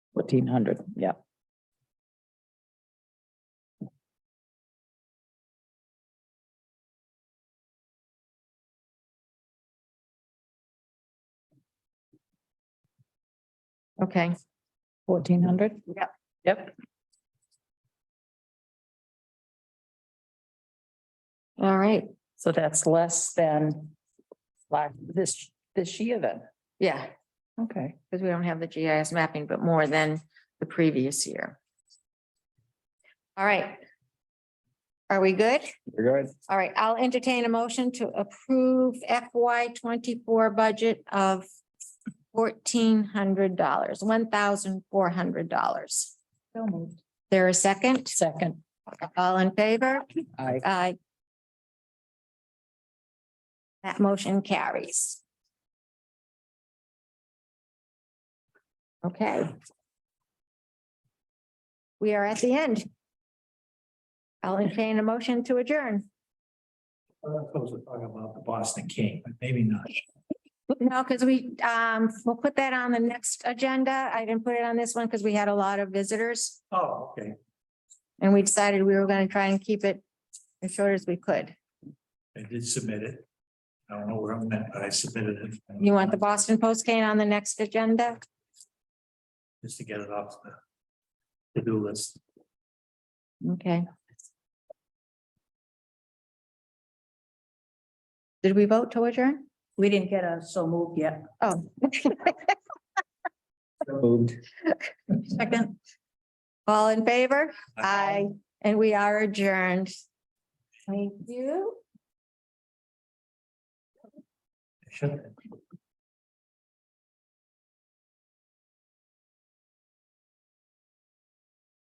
Fourteen hundred, yeah. Okay, Fourteen hundred? Yep. Yep, all right, so that's less than like this, this year then. yeah, Okay. because we don't have the GIS mapping, but more than the previous year. All right. Are we good? You're good. All right, I'll entertain a motion to approve FY twenty-four budget of fourteen hundred dollars, one thousand four hundred dollars. So moved. There a second? Second, All in favor? I, Aye. That motion carries. Okay. We are at the end. I'll entertain a motion to adjourn. Of course, we're talking about the Boston King, but maybe not. No, because we, um, we'll put that on the next agenda. I didn't put it on this one because we had a lot of visitors. Oh, okay. And we decided we were going to try and keep it as short as we could. I did submit it. I don't know where I'm at, but I submitted it. You want the Boston Post cane on the next agenda? Just to get it off the to-do list. Okay. Did we vote to adjourn? We didn't get a so moved yet. Oh. Moved. Second. All in favor? Aye. And we are adjourned. Thank you.